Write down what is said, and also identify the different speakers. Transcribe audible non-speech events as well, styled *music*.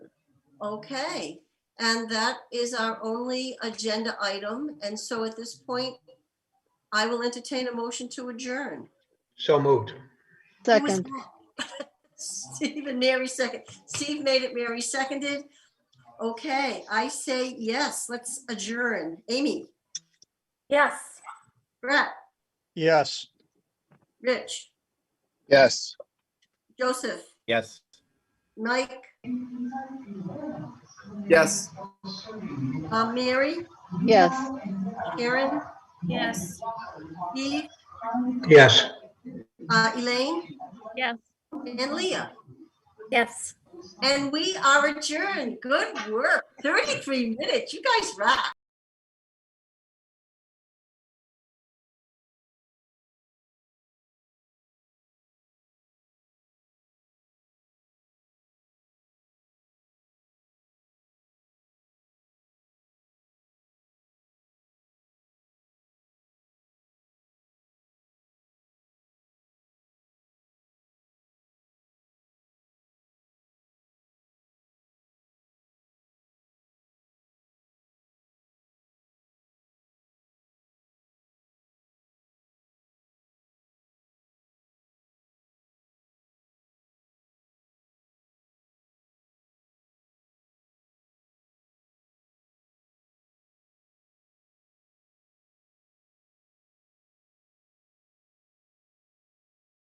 Speaker 1: Okay, and that is our only agenda item. And so at this point, I will entertain a motion to adjourn.
Speaker 2: So moved.
Speaker 1: Who was
Speaker 3: Second,
Speaker 1: that? *laughs* Steve and Mary second. Steve made it, Mary seconded. Okay, I say yes, let's adjourn. Amy,
Speaker 4: Yes.
Speaker 1: Brett,
Speaker 3: yes.
Speaker 1: Rich,
Speaker 5: Yes.
Speaker 1: Joseph,
Speaker 6: Yes.
Speaker 1: Mike,
Speaker 5: Yes.
Speaker 1: uh, Mary,
Speaker 3: Yes.
Speaker 1: Karen,
Speaker 4: Yes.
Speaker 1: Eve,
Speaker 2: Yes.
Speaker 1: uh, Elaine,
Speaker 4: Yes.
Speaker 1: and Leah.
Speaker 4: Yes.
Speaker 1: And we are adjourned. Good work. 33 minutes. You guys rock.